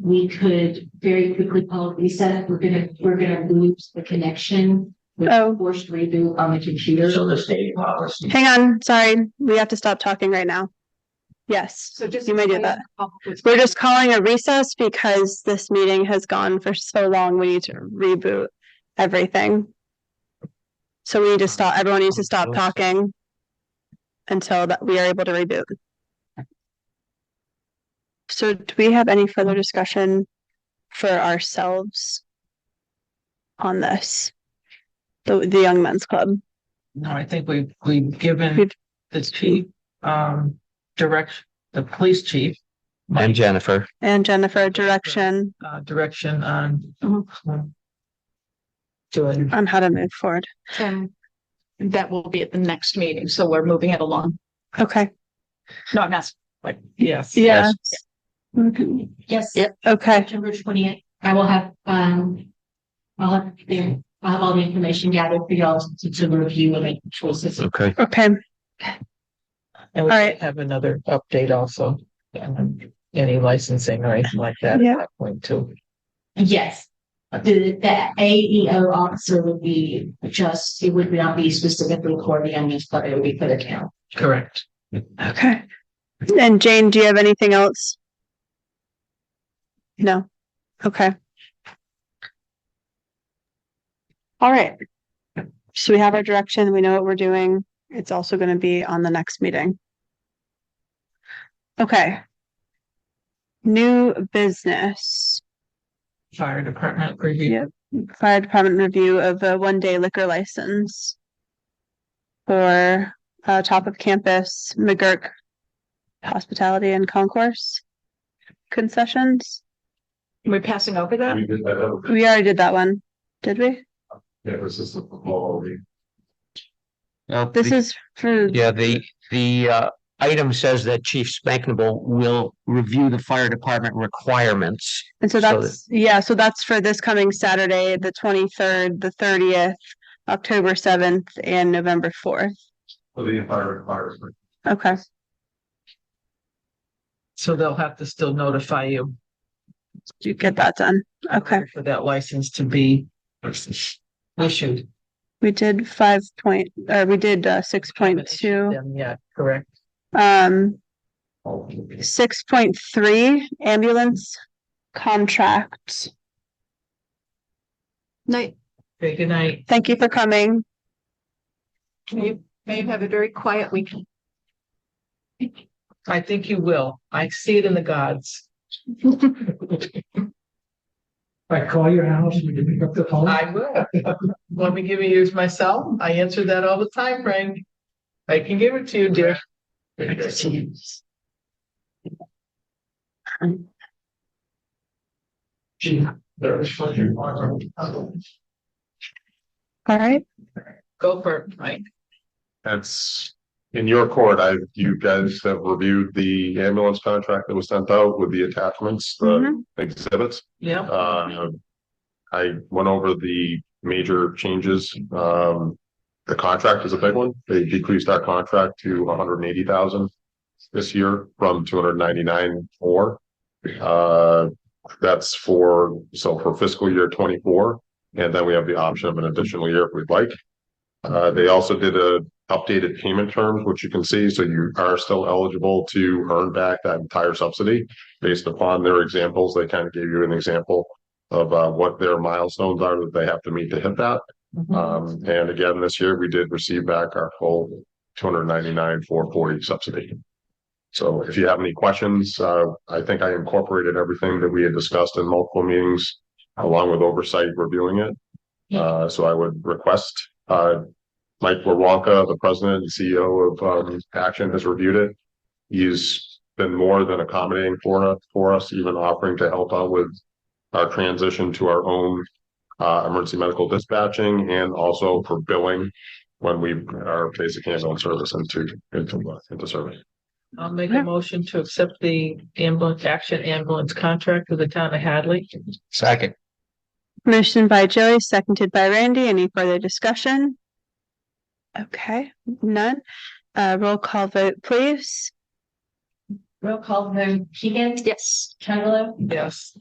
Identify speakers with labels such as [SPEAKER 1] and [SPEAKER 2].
[SPEAKER 1] we could very quickly call it reset. We're gonna, we're gonna lose the connection with
[SPEAKER 2] Oh.
[SPEAKER 1] forced reboot on the computer.
[SPEAKER 3] So the state policy.
[SPEAKER 2] Hang on, sorry, we have to stop talking right now. Yes,
[SPEAKER 4] So just.
[SPEAKER 2] You may do that. we're just calling a recess because this meeting has gone for so long. We need to reboot everything. So we need to stop, everyone needs to stop talking until that we are able to reboot. So do we have any further discussion for ourselves on this? The, the Young Men's Club?
[SPEAKER 5] No, I think we've, we've given
[SPEAKER 2] We've-
[SPEAKER 5] the chief, um, direct, the police chief.
[SPEAKER 3] I'm Jennifer.
[SPEAKER 2] And Jennifer, direction
[SPEAKER 5] Uh, direction on.
[SPEAKER 4] Mm-hmm.
[SPEAKER 5] Doing.
[SPEAKER 2] on how to move forward.
[SPEAKER 4] And that will be at the next meeting, so we're moving it along.
[SPEAKER 2] Okay,
[SPEAKER 4] No, I'm asking.
[SPEAKER 5] Like, yes.
[SPEAKER 2] yeah,
[SPEAKER 1] Mm-hmm. Yes,
[SPEAKER 2] okay,
[SPEAKER 1] September twentieth, I will have, um, I'll have, the- I'll have all the information gathered for y'all to, to review and make choices.
[SPEAKER 3] Okay.
[SPEAKER 2] okay,
[SPEAKER 5] And we
[SPEAKER 2] All right.
[SPEAKER 5] have another update also. um, Any licensing or anything like that
[SPEAKER 2] Yeah.
[SPEAKER 5] at that point too.
[SPEAKER 1] Yes, the, the AEO officer would be just, it would not be specifically for the young but it would be for the town.
[SPEAKER 5] Correct.
[SPEAKER 2] okay. And Jane, do you have anything else? No, okay. All right. So we have our direction, we know what we're doing. It's also gonna be on the next meeting. Okay. New business.
[SPEAKER 5] Fire department review.
[SPEAKER 2] Yeah. fire department review of a one day liquor license. For uh top of campus McGurk hospitality and concourse concessions.
[SPEAKER 4] We're passing over that?
[SPEAKER 6] We did that over,
[SPEAKER 2] We already did that one, did we?
[SPEAKER 6] that was just a quality.
[SPEAKER 2] This is for,
[SPEAKER 3] Yeah, the, the, uh, item says that Chief Spanknable will review the fire department requirements.
[SPEAKER 2] and so
[SPEAKER 3] so that-
[SPEAKER 2] that's, yeah, so that's for this coming Saturday, the twenty third, the thirtieth, October seventh and November fourth.
[SPEAKER 6] for the entire requirement.
[SPEAKER 2] Okay,
[SPEAKER 5] So they'll have to still notify you.
[SPEAKER 2] you get that done. Okay,
[SPEAKER 5] For that license to be issued.
[SPEAKER 2] we did five point, or we did uh six point two.
[SPEAKER 5] Yeah, correct.
[SPEAKER 2] Um,
[SPEAKER 6] All
[SPEAKER 2] Six point three ambulance contract.
[SPEAKER 4] No,
[SPEAKER 5] Okay, good night.
[SPEAKER 2] Thank you for coming.
[SPEAKER 4] can you, may you have a very quiet weekend?
[SPEAKER 5] I think you will. I see it in the gods.
[SPEAKER 7] I call your house and you pick up the phone.
[SPEAKER 5] I will. Let me give you yours myself. I answer that all the time, Frank. I can give it to you, dear.
[SPEAKER 2] All right.
[SPEAKER 5] Go for it, Mike.
[SPEAKER 6] That's in your court. I, you guys have reviewed the ambulance contract that was sent out with the attachments, the
[SPEAKER 2] Mhm.
[SPEAKER 6] exhibits.
[SPEAKER 5] Yeah.
[SPEAKER 6] Uh, I went over the major changes. Um, the contract is a big one. They decreased our contract to one hundred and eighty thousand this year from two hundred ninety-nine four. Uh, that's for, so for fiscal year twenty-four, and then we have the option of an additional year if we'd like. Uh, they also did a updated payment terms, which you can see, so you are still eligible to earn back that entire subsidy based upon their examples, they kind of gave you an example of uh, what their milestones are that they have to meet to hit that. Um, and again, this year we did receive back our full two hundred ninety-nine, four forty subsidy. So if you have any questions, uh, I think I incorporated everything that we had discussed in multiple meetings along with oversight reviewing it. Uh, so I would request, uh, Mike Warwalka, the president and CEO of, um, Action has reviewed it. He's been more than accommodating for us, for us, even offering to help out with our transition to our own uh, emergency medical dispatching and also for billing when we are basic ambulance service into, into, into service.
[SPEAKER 5] I'll make a motion to accept the ambulance, action ambulance contract with the town of Hadley.
[SPEAKER 3] Second.
[SPEAKER 2] Motion by Joey, seconded by Randy. Any further discussion? Okay, none. Uh, roll call vote, please.
[SPEAKER 1] Roll call vote, Keegan?
[SPEAKER 4] Yes.
[SPEAKER 1] Chugalo?
[SPEAKER 5] Yes.